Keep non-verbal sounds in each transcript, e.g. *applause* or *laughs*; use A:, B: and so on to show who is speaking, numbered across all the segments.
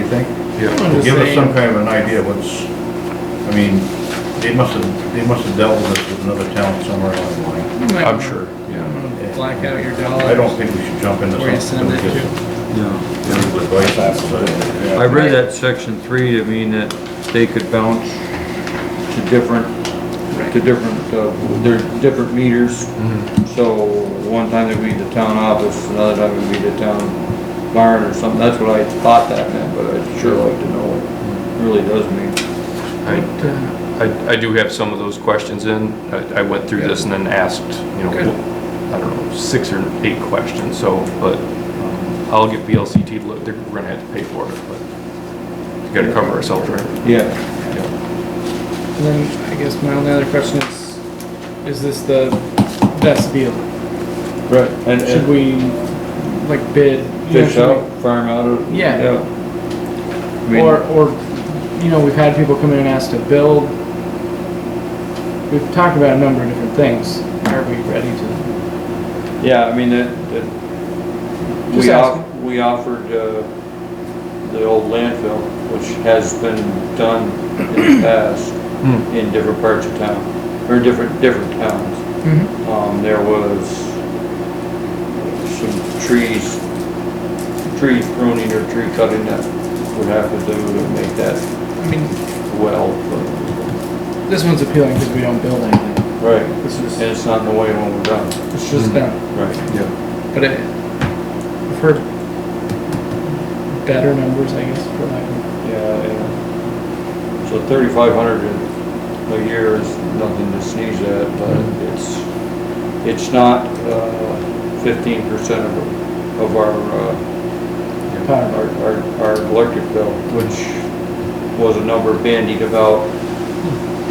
A: think?
B: Yeah.
A: To give us some kind of an idea what's, I mean, they must have, they must have dealt with this with another town somewhere along the line.
B: I'm sure, yeah.
A: sure.
C: Black out your dollars.
A: I don't think we should jump into
C: Where you send
A: something.
C: that
A: that
C: to?
A: just
D: No.
A: advice on the
D: I
A: side.
D: read that section three to mean that they could bounce to different, to different, uh, there's different meters.
C: Mm-hmm.
D: So one time it'd be the town office, another time it'd be the town barn or something. That's what I thought that meant, but I'd sure like to know what it really does mean.
B: I, I, I do have some of those questions in. I, I went through this and then asked, you
C: Good.
B: know, I don't know, six or eight questions, so, but um, I'll get VLCT, to look, they're we're gonna have to pay for it, but we gotta cover ourselves, right?
D: Yeah,
B: Yeah.
C: And then I guess my only other question is, is this the best deal?
D: right. And, uh,
C: Should
D: and
C: we like bid? you know,
D: fish
C: should we-
D: out, farm out of.
C: Yeah.
D: I mean-
C: Or, or, you know, we've had people come in and ask to build. We've talked about a number of different things. Are we ready to?
D: Yeah, I mean, that, that,
C: Just
D: we off,
C: asking.
D: we offered, uh, the old landfill, which has been done in the past
B: Hmm.
D: in different parts of town, or different, different towns. Um, there was some trees, tree pruning or tree cutting that would have to do to make that
C: I mean,
D: well, but,
C: this one's appealing because we don't build anything.
D: right,
C: This
D: and
C: is,
D: it's not in the way when we're done.
C: it's just done.
D: Right.
B: Yeah.
C: But it, I've heard better numbers, I guess, for like,
D: Yeah, yeah. So thirty-five hundred a year is nothing to sneeze at, but it's, it's not uh, fifteen percent of, of our, uh,
C: power.
D: our, our- our electric bill, which was a number bandied about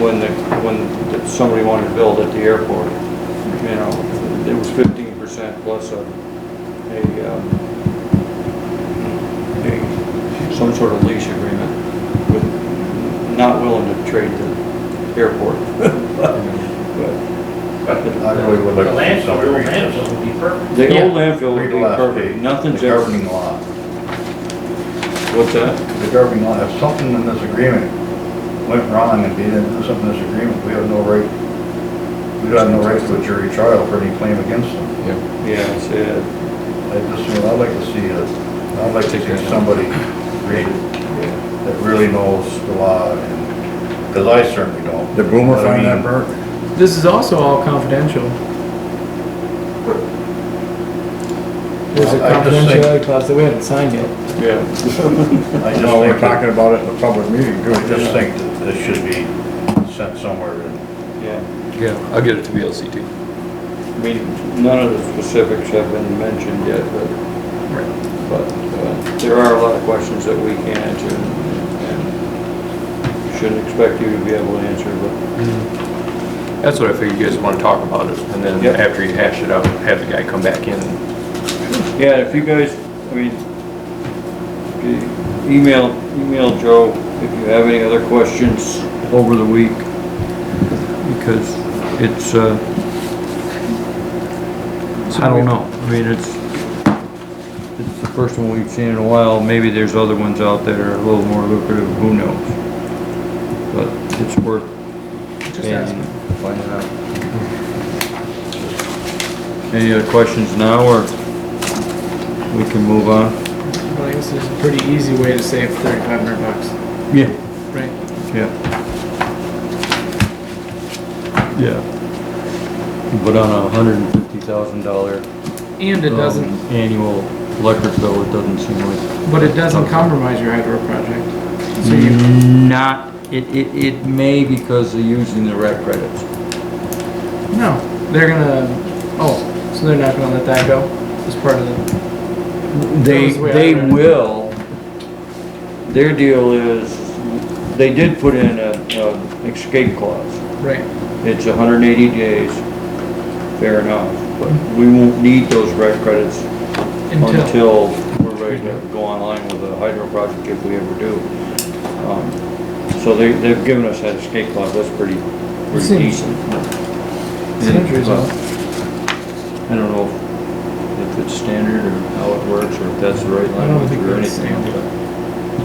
D: when the, when somebody wanted to build at the airport. You know, it was fifteen percent plus a, a, um, a, some sort of lease agreement with, not willing to trade the airport. *laughs* But
A: I really would
E: The
A: like to see
E: landfill,
A: some read-
E: the old landfill would be perfect.
D: The
C: Yeah.
D: old landfill would
A: read the
D: be
A: last
D: perfect,
A: page.
D: nothing's
A: The
D: ever,
A: governing law,
D: what's that?
A: the governing law, if something in this agreement went wrong and they didn't do something in this agreement, we have no right, we don't have no right to a jury trial for any claim against them.
B: Yeah.
D: Yeah, it's, uh,
A: I just, I'd like to see a, I'd like to see somebody read it that really knows the law and, because I certainly don't.
F: Did Boomer
A: But I
F: find that
A: mean,
F: bird?
C: This is also all confidential. There's a
A: I just think-
C: confidentiality clause that we haven't signed yet.
D: yeah,
A: I just
F: No, we're
A: think,
F: talking
A: that-
F: about it in a public meeting,
A: I
F: good.
A: just think that this should be sent somewhere and
D: yeah.
B: Yeah, I'll get it to VLCT.
D: I mean, none of the specifics have been mentioned yet, but, but uh, there are a lot of questions that we can answer and- and shouldn't expect you to be able to answer, but,
B: That's what I figured you guys wanna talk about it, and then
D: Yep.
B: after you hash it out, have the guy come back in.
D: yeah, if you guys, I mean, e- email, email Joe if you have any other questions over the week, because it's, uh, I don't know, I mean, it's, it's the first one we've seen in a while, maybe there's other ones out there a little more lucrative, who knows? But it's worth
C: Just
D: paying,
C: asking.
D: finding out. Any other questions now, or we can move on?
C: Well, I guess there's a pretty easy way to save thirty-five hundred bucks,
D: Yeah.
C: right?
D: Yeah. Yeah. But on a hundred and fifty thousand dollar. um,
C: And it doesn't,
D: Annual electric bill, it doesn't seem like.
C: but it doesn't
A: Um,
C: compromise your hydro project. So you,
D: Not, it, it, it may because they're using the rec credits.
A: Mm-hmm.
C: no, they're gonna, oh, so they're not gonna let that go as part of the, That
D: They,
C: was the way I
D: they
C: read it.
D: will, their deal is, they did put in a, a escape clause.
C: right?
D: It's hundred and eighty days, fair enough, but we won't need those rec credits
C: Until,
D: until we're ready to go online with the hydro project if we ever do. Um, So they, they've given us that escape clause, that's pretty, pretty
C: Seems-
D: decent.
C: it's reasonable.
D: I don't know if it's standard or how it works, or if that's the right
C: I don't
D: language
C: think
D: or
C: that's
D: anything.
C: standard.